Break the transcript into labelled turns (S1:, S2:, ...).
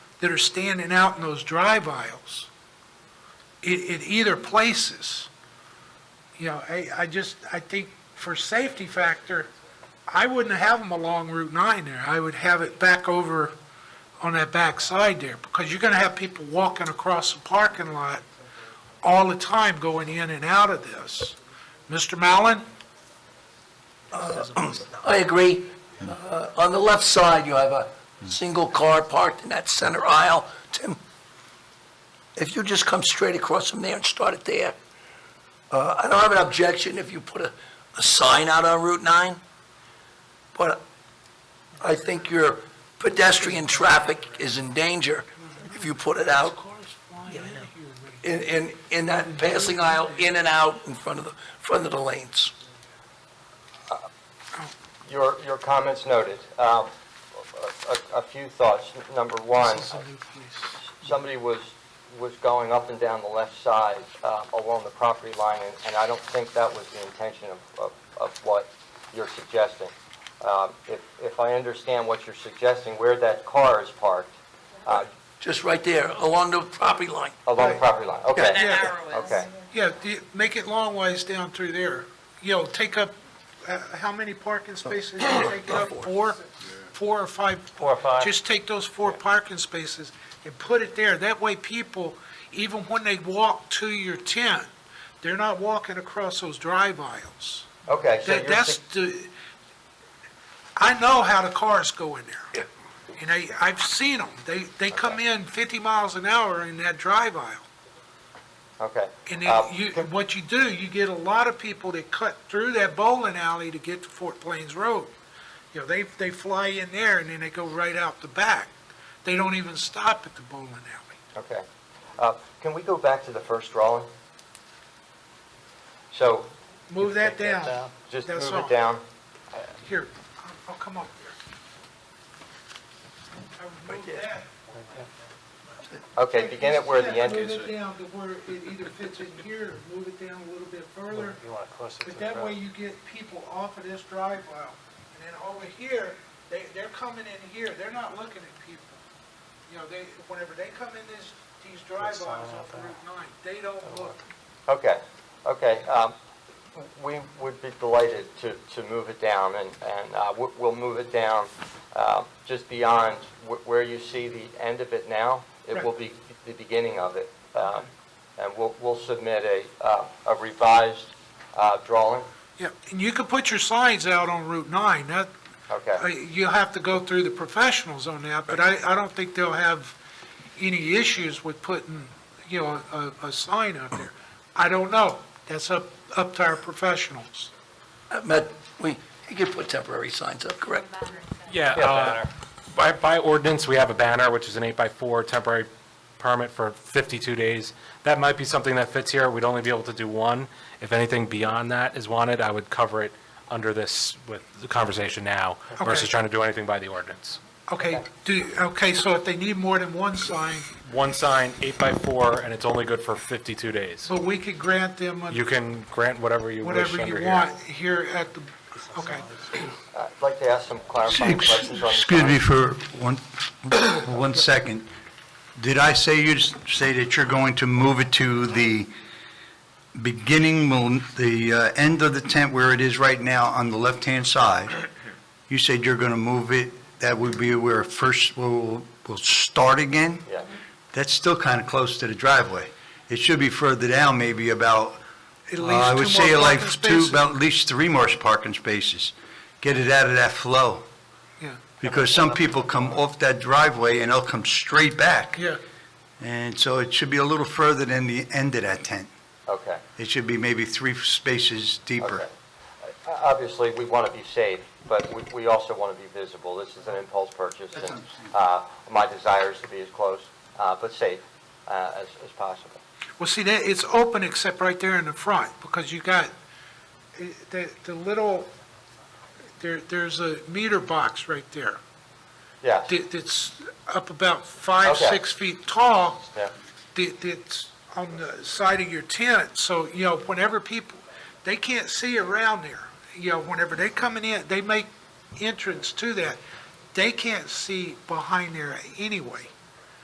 S1: that are standing out in those drive aisles in, in either places. You know, I, I just, I think for safety factor, I wouldn't have them along Route 9 there. I would have it back over on that back side there, because you're going to have people walking across the parking lot all the time going in and out of this. Mr. Mallon?
S2: I agree. Uh, On the left side, you have a single car parked in that center aisle. Tim, if you just come straight across from there and start it there, uh, I don't have an objection if you put a, a sign out on Route 9, but I think your pedestrian traffic is in danger if you put it out in, in, in that passing aisle, in and out in front of the, front of the lanes.
S3: Your, your comments noted. Um, A a- a few thoughts. Number one,
S1: This is a new place.
S3: somebody was, was going up and down the left side uh, along the property line, and- and I don't think that was the intention of- of, of what you're suggesting. Um, If, if I understand what you're suggesting, where that car is parked, uh,
S2: Just right there, along the property line.
S3: along the property line, okay,
S1: Yeah.
S4: That arrow is.
S3: okay.
S1: Yeah, the- make it long ways down through there. You know, take up, uh, how many parking spaces you take up? Four? Four or five?
S3: Four or five.
S1: Just take those four parking spaces and put it there. That way people, even when they walk to your tent, they're not walking across those drive aisles.
S3: Okay, so
S1: That,
S3: you're,
S1: that's
S3: su-
S1: the, I know how the cars go in there. And I, I've seen them. They, they come in 50 miles an hour in that drive aisle.
S3: okay.
S1: And
S3: Uh,
S1: then you, what you do, you get a lot of people that cut through that bowling alley to get to Fort Plains Road. You know, they, they fly in there and then they go right out the back. They don't even stop at the bowling alley.
S3: Okay. Uh, Can we go back to the first drawing? So,
S1: Move that down.
S3: just
S1: That's
S3: move
S1: all.
S3: it down.
S1: Here, I'll- I'll come up here. I would move that.
S3: Okay, begin at where the
S1: Yeah,
S3: end is.
S1: Move it down to where it either fits in here, or move it down a little bit further.
S5: You want to close it to
S1: But
S5: the
S1: that
S5: road.
S1: way you get people off of this drive aisle, and then over here, they, they're coming in here, they're not looking at people. You know, they, whenever they come in this, these drive aisles
S5: Sign out
S1: off of
S5: there.
S1: Route nine, they don't look.
S3: Okay, okay. um, We would be delighted to, to move it down, and, and uh, we- we'll move it down uh, just beyond wh- where you see the end of it now. It will be the beginning of it. Um, And we'll, we'll submit a, uh, a revised uh, drawing.
S1: Yeah, and you can put your signs out on Route nine, that, uh,
S3: Okay,
S1: you'll have to go through the professionals on that, but I, I don't think they'll have any issues with putting, you know, a, a sign up there. I don't know, that's up, up to our professionals.
S2: Uh, Matt, we, you can put temporary signs up, correct?
S6: Yeah,
S3: Yeah,
S6: uh, by, by ordinance, we have a banner, which is an eight by four temporary permit for 52 days. That might be something that fits here. We'd only be able to do one. If anything beyond that is wanted, I would cover it under this with the conversation now versus
S1: Okay.
S6: trying to do anything by the ordinance.
S1: Okay, do, okay, so if they need more than one sign,
S6: One sign, eight by four, and it's only good for 52 days.
S1: but we could grant them a-
S6: You can grant whatever you wish
S1: whatever
S6: under
S1: you
S6: here.
S1: want here at the, okay.
S3: I'd like to ask some clarifying
S7: Ex-
S3: questions on the
S7: Excuse
S3: sign.
S7: me for one, one second. Did I say you, say that you're going to move it to the beginning, mil- the uh, end of the tent where it is right now on the left-hand side? You said you're going to move it, that would be where first we'll, we'll start again?
S3: Yeah.
S7: That's still kind of close to the driveway. It should be further down, maybe about,
S1: At
S7: uh,
S1: least
S7: I would
S1: two
S7: say
S1: more
S7: like
S1: parking
S7: two,
S1: spaces.
S7: about at least three more parking spaces. Get it out of that flow.
S1: Yeah,
S7: Because some people come off that driveway and they'll come straight back.
S1: yeah,
S7: And so it should be a little further than the end of that tent.
S3: Okay.
S7: It should be maybe three spaces deeper.
S3: Okay. Uh, Obviously, we want to be safe, but we- we also want to be visible. This is an impulse purchase, and uh, my desire is to be as close, uh, but safe, uh, as as possible.
S1: well, see, that, it's open except right there in the front, because you got, eh, the, the little, there, there's a meter box right there.
S3: Yes,
S1: that- that's up about five,
S3: Okay.
S1: six feet tall.
S3: Yeah.
S1: that- That's on the side of your tent, so, you know, whenever people, they can't see around there. You know, whenever they coming in, they make entrance to that, they can't see behind there anyway.